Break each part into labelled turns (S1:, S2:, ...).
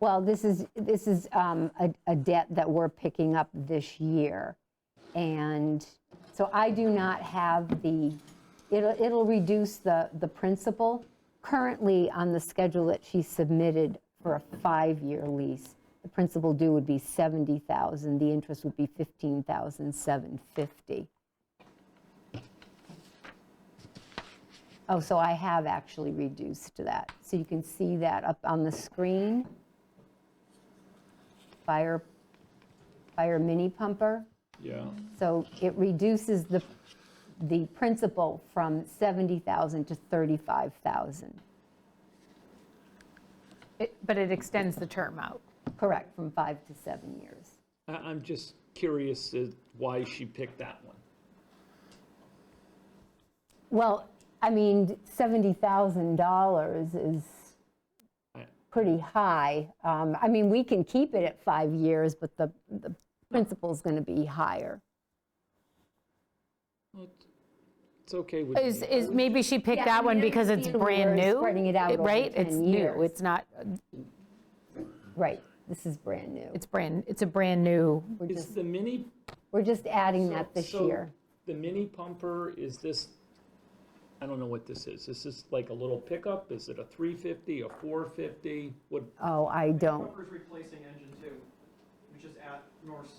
S1: Well, this is, this is um, a a debt that we're picking up this year. And so I do not have the, it'll, it'll reduce the, the principal. Currently, on the schedule that she submitted for a five-year lease, the principal due would be 70,000, the interest would be 15,750. Oh, so I have actually reduced that. So you can see that up on the screen. Fire, fire mini pumper.
S2: Yeah,
S1: So it reduces the, the principal from 70,000 to 35,000.
S3: It- But it extends the term out.
S1: Correct, from five to seven years.
S2: I, I'm just curious as why she picked that one.
S1: Well, I mean, $70,000 is
S2: I-
S1: pretty high. Um, I mean, we can keep it at five years, but the, the principal's going to be higher.
S2: Well, It's it's okay with
S3: Is,
S2: me.
S3: is, maybe she
S1: Yeah,
S3: picked
S1: I
S3: that
S1: mean,
S3: one
S1: I
S3: because it's
S1: understand
S3: brand
S1: we're
S3: new?
S1: spreading it out over
S3: Right, it's
S1: 10 years.
S3: new, it's not,
S1: Right, this is brand new.
S3: it's brand, it's a brand new,
S1: We're
S2: Is
S1: just,
S2: the mini?
S1: we're just adding that this
S2: so
S1: year.
S2: The mini pumper, is this, I don't know what this is. Is this like a little pickup? Is it a 350, a 450? What,
S1: Oh, I don't,
S4: Pumper's replacing engine two, which is at North.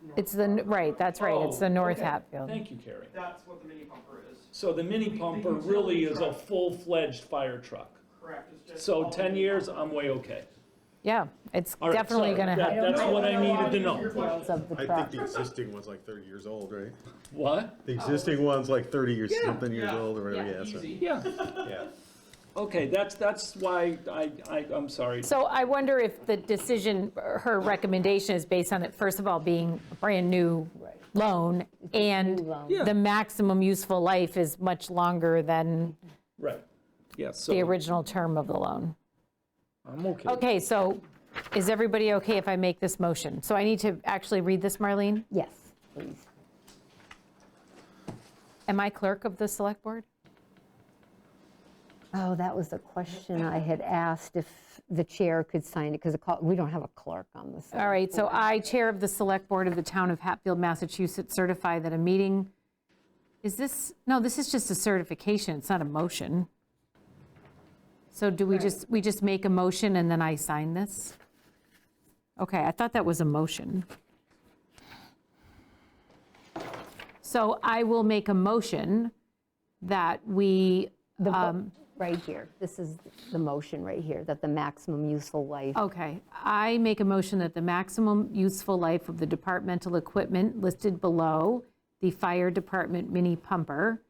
S4: North
S3: it's the, n- right, that's right, it's the
S2: Oh,
S3: North
S2: okay.
S3: Hatfield.
S2: thank you, Carrie.
S4: That's what the mini pumper is,
S2: So the mini pumper
S4: utility
S2: really is a
S4: truck.
S2: full-fledged fire truck.
S4: correct? It's just
S2: So
S4: all
S2: 10
S4: mini
S2: years,
S4: pumper.
S2: I'm way okay.
S3: Yeah, it's
S2: All right,
S3: definitely
S2: sorry.
S3: going to
S2: That-
S3: help.
S2: That's what I needed to know.
S1: details of the
S5: I
S1: truck.
S5: think the existing one's like 30 years old, right?
S2: What?
S5: The existing one's like 30 years,
S2: Yeah.
S5: something years
S4: Yeah.
S5: old, or whatever, yeah, so,
S4: Easy.
S2: Yeah,
S5: yeah.
S2: okay, that's, that's why I, I, I'm sorry.
S3: So I wonder if the decision, her recommendation is based on it, first of all, being a brand-new loan, and
S1: loan.
S2: Yeah.
S3: the maximum useful life is much longer than
S2: Right, yeah, so.
S3: the original term of the loan.
S2: I'm okay.
S3: Okay, so is everybody okay if I make this motion? So I need to actually read this, Marlene?
S1: Yes, please.
S3: Am I clerk of the select board?
S1: Oh, that was the question I had asked if the chair could sign it, because we don't have a clerk on this.
S3: All right, so I, Chair of the Select Board of the Town of Hatfield, Massachusetts, certify that a meeting, is this, no, this is just a certification, it's not a motion. So do we just, we just make a motion and then I sign this? Okay, I thought that was a motion. So I will make a motion that we,
S1: The vo-
S3: um,
S1: Right here, this is the motion right here, that the maximum useful life,
S3: Okay, I make a motion that the maximum useful life of the departmental equipment listed below, the fire department mini pumper,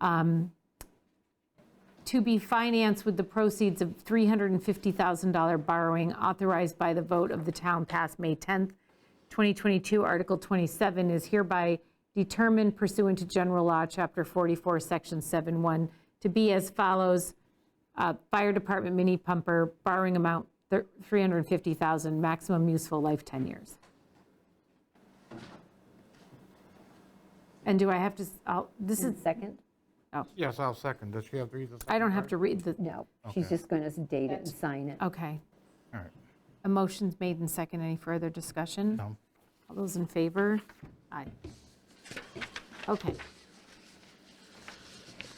S3: um, to be financed with the proceeds of $350,000 borrowing authorized by the vote of the town passed May 10th, 2022, Article 27 is hereby determined pursuant to General Law, Chapter 44, Section 71, to be as follows. Uh, Fire Department mini pumper, borrowing amount thir- 350,000, maximum useful life 10 years. And do I have to, s- I'll- this is,
S1: second?
S6: Yes, I'll second. Does she have to read the
S3: I
S6: second
S3: don't have
S6: part?
S3: to read the,
S1: No, she's just going to date it and sign it.
S3: okay.
S6: All right.
S3: A motion's made and second. Any further discussion?
S6: No.
S3: All those in favor? Aye. Okay.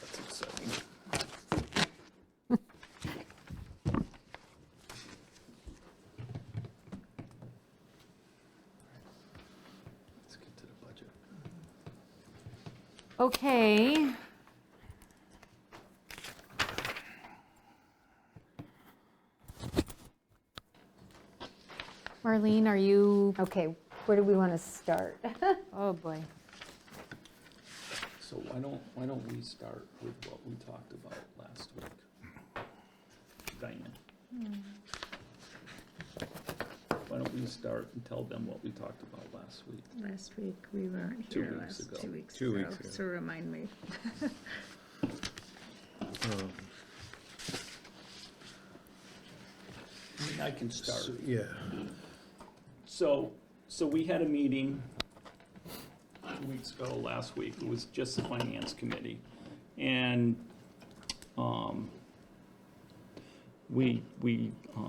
S2: That's exciting. Let's get to the budget.
S3: Okay. Marlene, are you,
S1: Okay, where do we want to start?
S3: oh boy.
S2: So why don't, why don't we start with what we talked about last week? Diane?
S3: Hmm.
S2: Why don't we start and tell them what we talked about last week?
S7: Last week, we weren't
S2: Two
S7: here
S2: weeks
S7: last,
S2: ago.
S7: two weeks
S5: Two
S7: ago,
S5: weeks ago.
S7: so remind me.
S5: Um,
S2: I mean, I can start.
S5: Yeah.
S2: So, so we had a meeting two weeks ago, last week, it was just the finance committee. And, um, we, we, um,